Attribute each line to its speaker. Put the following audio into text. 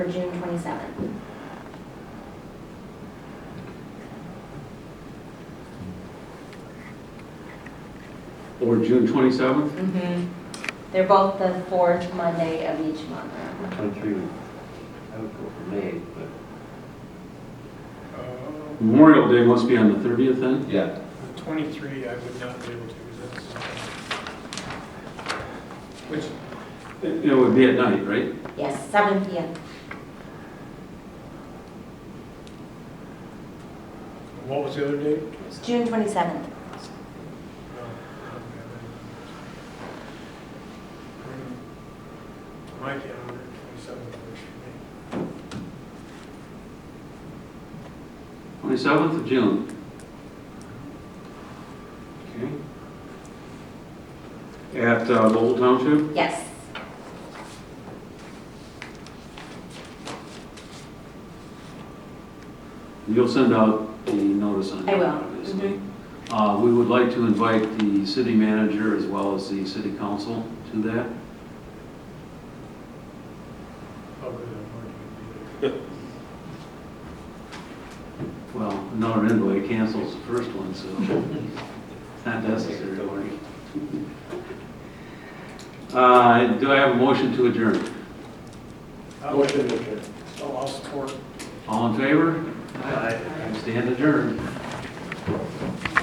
Speaker 1: for June twenty-seventh.
Speaker 2: Or June 27th?
Speaker 1: Mm-hmm. They're both the fourth Monday of each month.
Speaker 3: Which one three would, I would go for May, but.
Speaker 4: Uh,
Speaker 2: Memorial Day must be on the 30th then?
Speaker 3: Yeah.
Speaker 4: the 23, I would not be able to, because that's... Which,
Speaker 2: It it would be at night, right?
Speaker 1: Yes, seven P M.
Speaker 4: what was the other date?
Speaker 1: It's June twenty-seventh.
Speaker 4: No, I don't have any. My calendar, 27 works for
Speaker 2: 27th of June. Okay. At uh, Lowell Township?
Speaker 1: Yes.
Speaker 2: You'll send out the notice on
Speaker 1: I
Speaker 2: that,
Speaker 1: will.
Speaker 2: obviously. Uh, We would like to invite the city manager as well as the city council to that.
Speaker 4: me. How good I'm working.
Speaker 2: Well, another invite cancels the first one, so it's not necessary. Uh, Do I have a motion to adjourn?
Speaker 4: Motion to adjourn. So Oh, I'll support.
Speaker 2: All in favor? Stand adjourned.